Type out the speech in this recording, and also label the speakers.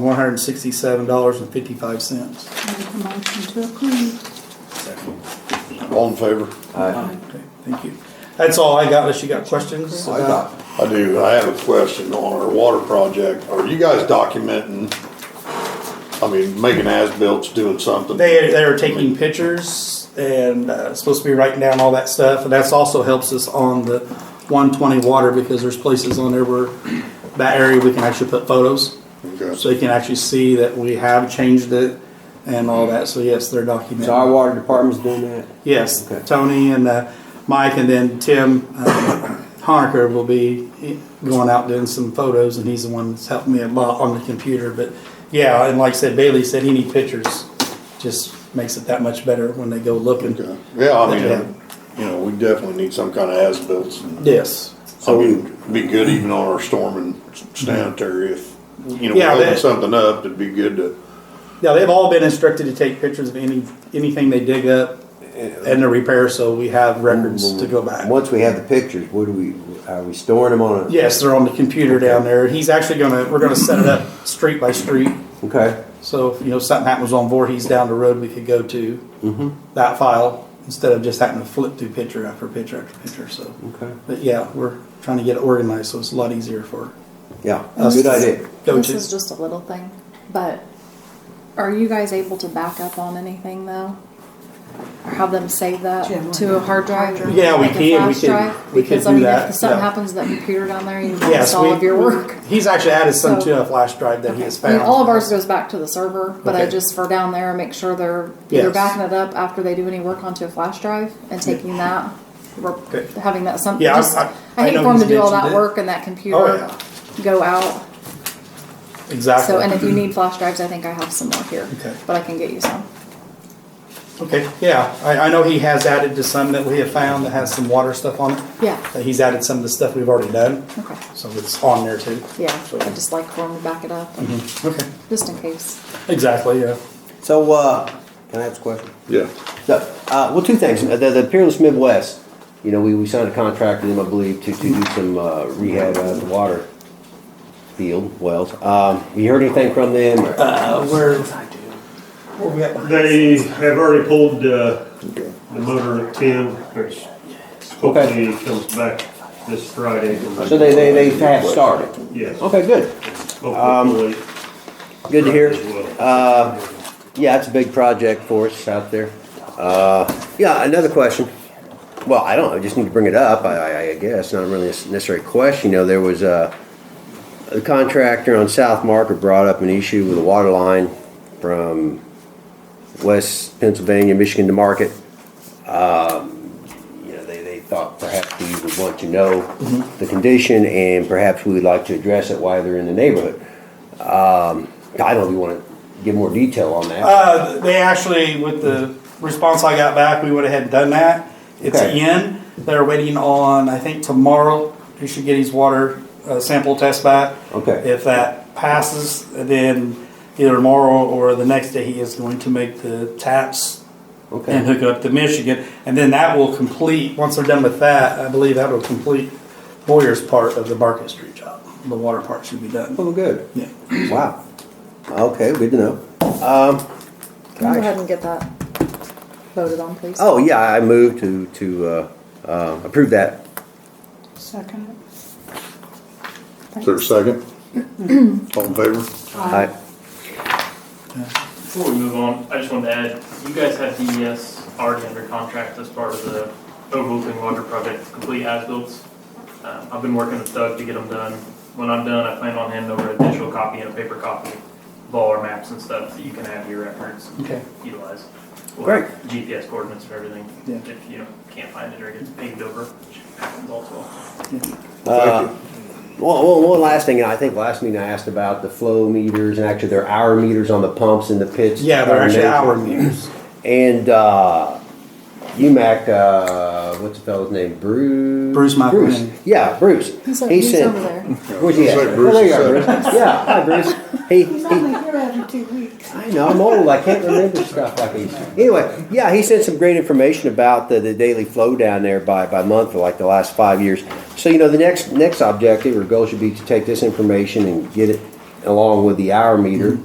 Speaker 1: one hundred and sixty-seven dollars and fifty-five cents.
Speaker 2: Make a motion to approve.
Speaker 3: All in favor?
Speaker 1: Okay, thank you. That's all I got, unless you got questions?
Speaker 4: I got,
Speaker 3: I do, I have a question on our water project. Are you guys documenting? I mean, making as-bills, doing something?
Speaker 1: They, they are taking pictures and uh, supposed to be writing down all that stuff, and that's also helps us on the one twenty water, because there's places on there where that area we can actually put photos, so
Speaker 3: Okay.
Speaker 1: you can actually see that we have changed it and all that, so yes, they're documenting.
Speaker 4: so our water department's doing that?
Speaker 1: Yes,
Speaker 4: Okay.
Speaker 1: Tony and uh, Mike, and then Tim uh, Honaker will be going out doing some photos, and he's the one that's helping me a lot on the computer. But yeah, and like I said, Bailey said he need pictures. Just makes it that much better when they go looking.
Speaker 3: Okay. Yeah, I mean,
Speaker 1: Yeah.
Speaker 3: uh, you know, we definitely need some kind of as-bills.
Speaker 1: Mm-hmm. Yes.
Speaker 3: I mean, it'd be good even on our storm and sanitary if, you know, we're
Speaker 1: Yeah,
Speaker 3: holding
Speaker 1: that-
Speaker 3: something up, it'd be good to,
Speaker 1: Yeah, they've all been instructed to take pictures of any anything they dig up and the repair, so we have records to go back.
Speaker 4: Once we have the pictures, what do we, are we storing them on a?
Speaker 1: Yes, they're on the computer down there. He's actually gonna we're gonna set it up street by street.
Speaker 4: Okay,
Speaker 1: So if, you know, something happens on Voorhees down the road, we could go to
Speaker 4: Mm-hmm.
Speaker 1: that file instead of just having to flip through picture after picture after picture. So,
Speaker 4: okay,
Speaker 1: but yeah, we're trying to get it organized, so it's a lot easier for
Speaker 4: yeah,
Speaker 1: us.
Speaker 4: good idea.
Speaker 5: This is
Speaker 1: Coaches.
Speaker 5: just a little thing, but are you guys able to back up on anything though? Or have them
Speaker 2: Jim,
Speaker 5: save that to a hard drive? or
Speaker 1: Yeah, we
Speaker 5: like a
Speaker 1: can, we
Speaker 5: flash
Speaker 1: can-
Speaker 5: drive?
Speaker 1: we can
Speaker 5: Because I
Speaker 1: do
Speaker 5: mean,
Speaker 1: that,
Speaker 5: if something
Speaker 1: yeah.
Speaker 5: happens to that computer down there, you
Speaker 1: Yes,
Speaker 5: lost all
Speaker 1: we-
Speaker 5: of your work.
Speaker 1: He's actually added some
Speaker 5: So-
Speaker 1: to a flash drive that he has
Speaker 5: I mean,
Speaker 1: found.
Speaker 5: all of ours goes back to the server, but I
Speaker 1: Okay.
Speaker 5: just for down there, make sure they're either
Speaker 1: Yes.
Speaker 5: backing it up after they do any work onto a flash drive and taking that, or
Speaker 1: Okay.
Speaker 5: having that something.
Speaker 1: Yeah, I-
Speaker 5: just,
Speaker 1: I- I
Speaker 5: I hate
Speaker 1: know
Speaker 5: for them
Speaker 1: he's
Speaker 5: to do all
Speaker 1: mentioned
Speaker 5: that
Speaker 1: it.
Speaker 5: work and that
Speaker 1: Oh, yeah.
Speaker 5: computer go out.
Speaker 1: exactly.
Speaker 5: So, and if you need flash drives, I think I have some more here,
Speaker 1: Okay.
Speaker 5: but I can get you some.
Speaker 1: okay, yeah, I, I know he has added to some that we have found that has some water stuff on it.
Speaker 5: Yeah,
Speaker 1: That he's added some of the stuff we've already done,
Speaker 5: okay.
Speaker 1: so it's on there too.
Speaker 5: Yeah,
Speaker 1: So-
Speaker 5: I just like for them to back it up,
Speaker 4: Mm-hmm.
Speaker 1: Okay,
Speaker 5: just in case.
Speaker 1: exactly. Yeah.
Speaker 4: So, uh, can I ask a question?
Speaker 3: yeah.
Speaker 4: No, uh, well, two things, Uh, the, the Peerless Midwest, you know, we, we signed a contract with them, I believe, to, to do some, uh, rehab of the water field, wells. Um, you heard anything from them, or-
Speaker 1: Uh, where where we at?
Speaker 6: They have already pulled uh, the motor at ten, which hopefully comes back this Friday.
Speaker 4: so they, they, they have started?
Speaker 6: Yes.
Speaker 4: Okay, good.
Speaker 6: Hopefully.
Speaker 4: Good to hear.
Speaker 6: As well.
Speaker 4: Uh, Yeah, it's a big project for us out there. Uh, Yeah, another question. Well, I don't know, I just need to bring it up, I- I I guess, not really a necessary question. You know, there was a a contractor on South Market brought up an issue with a water line from West Pennsylvania, Michigan to Market. Um, You know, they they thought perhaps we would want to know the condition and perhaps we would like to address it while they're in the neighborhood. I don't know if you want to give more detail on that.
Speaker 1: Uh, they actually, with the response I got back, we went ahead and done that. It's
Speaker 4: Okay.
Speaker 1: in. They're waiting on, I think tomorrow, he should get his water uh, sample test back.
Speaker 4: Okay.
Speaker 1: If that passes, then either tomorrow or the next day, he is going to make the taps and
Speaker 4: Okay.
Speaker 1: hook up to Michigan. And then that will complete, once they're done with that, I believe that will complete Boyer's part of the Market Street job. The water part should be done.
Speaker 4: Oh, good.
Speaker 1: Yeah.
Speaker 4: Wow. Okay, good to know. Um,
Speaker 5: Can you
Speaker 4: Nice.
Speaker 5: go ahead and get that voted on, please?
Speaker 4: oh, yeah, I moved to, to, uh, uh, approve that.
Speaker 2: Second.
Speaker 3: Is there a second? All in favor?
Speaker 5: Uh-huh.
Speaker 4: I,
Speaker 7: Before we move on, I just wanted to add, you guys have E DES already under contract as part of the overall clean water project, complete as-bills. Uh, I've been working with Doug to get them done. When I'm done, I plan on handing over a digital copy and a paper copy of all our maps and stuff that you can have your reference,
Speaker 1: Okay.
Speaker 7: utilize. We'll
Speaker 4: Great.
Speaker 7: have GPS coordinates for everything,
Speaker 1: Yeah.
Speaker 7: if you can't find it or gets paved over, which happens also.
Speaker 4: uh, one, one, one last thing, and I think last meeting I asked about the flow meters, and actually they're hour meters on the pumps and the pits. Uh,
Speaker 1: Yeah, they're actually hour meters.
Speaker 4: And, uh, UMAC, uh, what's the fellow's name? Bruce?
Speaker 1: Bruce McElhinney.
Speaker 4: Bruce. Yeah, Bruce.
Speaker 5: He's,
Speaker 4: He
Speaker 5: he's
Speaker 4: sent-
Speaker 5: over there.
Speaker 4: Where's he at?
Speaker 3: Say
Speaker 4: Oh,
Speaker 3: Bruce
Speaker 4: there you
Speaker 3: is
Speaker 4: are, Bruce.
Speaker 3: second.
Speaker 4: Yeah, hi, Bruce. He,
Speaker 2: He's
Speaker 4: he,
Speaker 2: only here every two weeks.
Speaker 4: I know, I'm old, I can't remember stuff like these. Anyway, yeah, he sent some great information about the, the daily flow down there by, by month for like the last five years. So, you know, the next, next objective or goal should be to take this information and get it along with the hour meter.